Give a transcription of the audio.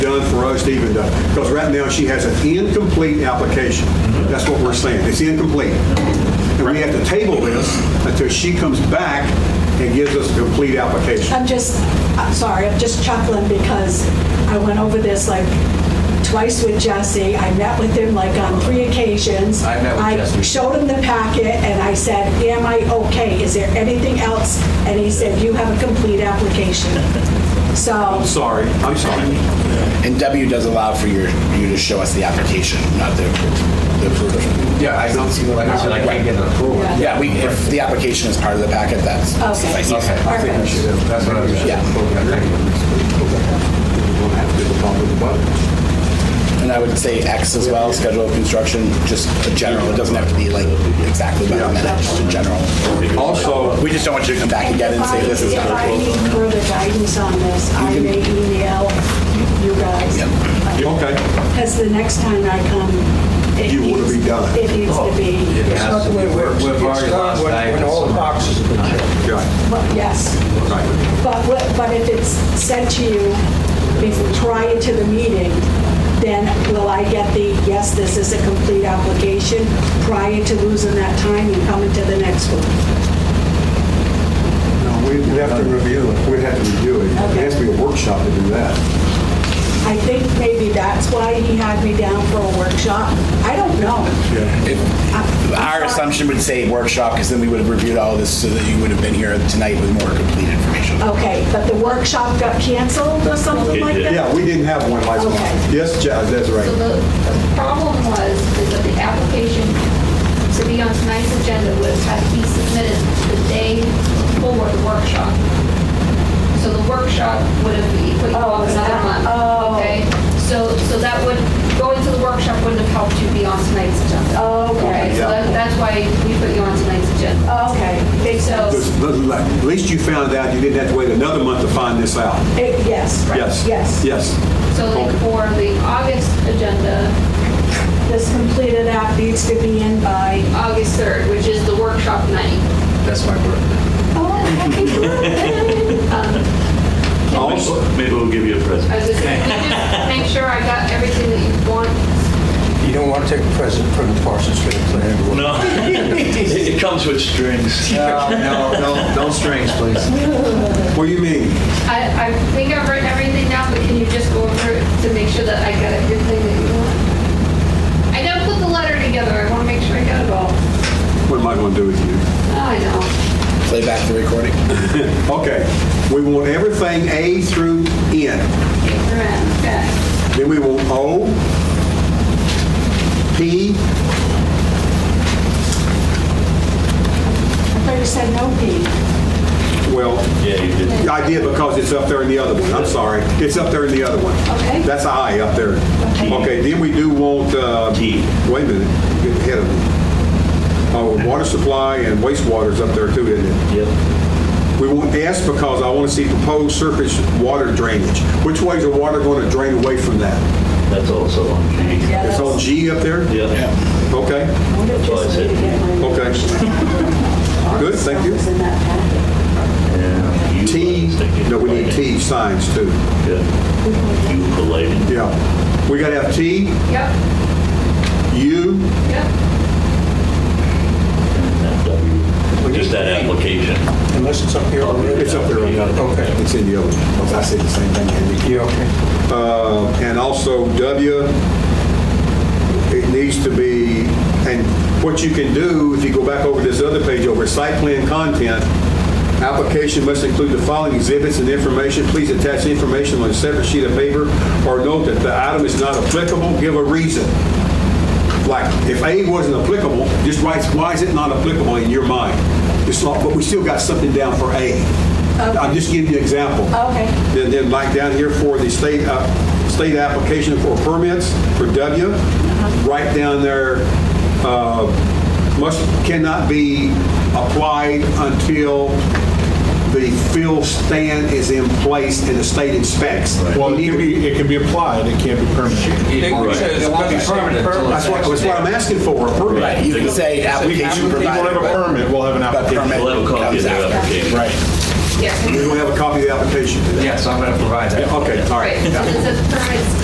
Stephen does. Because right now, she has an incomplete application. That's what we're saying. It's incomplete. And we have to table this until she comes back and gives us a complete application. I'm just, I'm sorry, I'm just chuckling because I went over this like twice with Jesse. I met with him like on three occasions. I met with Jesse. showed him the packet and I said, am I okay? Is there anything else? And he said, you have a complete application. So, I'm sorry, I'm sorry. And W does allow for your, you to show us the application, not the, the approval. Yeah, I don't see, like I said, I can't get an approval. Yeah. Yeah, we, if the application is part of the packet, that's Okay. suffices. Okay, I think we should, that's what I was. Yeah. And I would say X as well, schedule of construction, just a general, it doesn't have to be like exactly by the minute, just in general. Also, We just don't want you to come back again and say this is. If I need further guidance on this, I may email you guys. okay, Because the next time I come, it You wanna be needs- done. It needs to be, It's not the way it works. We've already It's lost done when- when all the guidance. boxes have been checked. right, well, yes. right. But, what- but if it's sent to you bef- prior to the meeting, then will I get the, yes, this is a complete application, prior to losing that time and coming to the next one? No, we we have to review it. We have to review it. It has to be a workshop to do that. I think maybe that's why he had me down for a workshop. I don't know. Our assumption would say workshop, because then we would have reviewed all this so that you would have been here tonight with more complete information. Okay, but the workshop got canceled or something like that? Yeah, we didn't have one last month. Okay. Yes, Ja- that's So right. the, the problem was, is that the application to be on tonight's agenda would have had to be submitted the day before the workshop. So the workshop would have equally Oh, called is another that- month. oh. Okay, so, so that would, going to the workshop wouldn't have helped you be on tonight's agenda. Okay, Oh, Okay, so Yeah. that- that's why we put you on tonight's agenda. okay, They- so, So, At least you found out. You didn't have to wait another month to find this out. eh, yes, Yes. yes. Yes. so like for the August agenda, This completed app needs to be in by, August 3rd, which is the workshop night. That's my birthday. Oh. Also, Maybe we'll give you a present. I was just, can you just make sure I got everything that you want? You don't want to take a present from the Parsons Field Plan. No, it comes with strings. No, no, no, no strings, please. What do you mean? I, I think I've written everything down, but can you just go over it to make sure that I got everything that you want? I gotta put the letter together, I wanna make sure I got it all. What am I going to do with you? Oh, I know. Play back the recording. Okay, we want everything A through N. Okay, Then we want O, P, I thought you said no P. well, Yeah, you did. I did because it's up there in the other one. I'm sorry. It's up there in the other one. Okay. That's I up there. T. Okay, then we do want, uh, T. wait a minute, get ahead of me. Oh, water supply and wastewater's up there too, isn't it? Yep. We want S because I want to see proposed surface water drainage. Which way is the water going to drain away from that? That's also on G. Yeah, It's that's, on I G up there? Yeah. Okay. would have Well, I just said- needed to get my. Okay. Good, thank you. It's in that packet. And you T, was thinking no, we need lighting. T signs too. Yeah. You for lighting. Yeah. We got to have T, yep, U, yep. and W. Just that application. Unless it's up here already. it's up there on the other. Okay. It's in the other, because I said the same thing, Andy. Yeah, okay. Uh, And also W, it needs to be, and what you can do, if you go back over this other page over site plan content, application must include the following exhibits and information. Please attach information on a separate sheet of paper or note that the item is not applicable. Give a reason. Like, if A wasn't applicable, just write, why is it not applicable in your mind? It's not, but we still got something down for A. I'll just give you an example. Okay. Then, then like down here for the state, uh, state application for permits for W, right down there, uh, must, cannot be applied until the fill stand is in place and the state inspects. Well, it can be, it can be applied, it can't be permanent. It won't says it won't be be permanent. permanent until That's it's what, that's what actually- I'm asking for, a permit. Right, you can say application We provided. will have a but- permit, we'll have an But application. permit We'll have a copy of comes the after. application. Right. Yes. We're going to have a copy of the application. Yes, I'm gonna provide that. Okay, all right. Right, so it says permits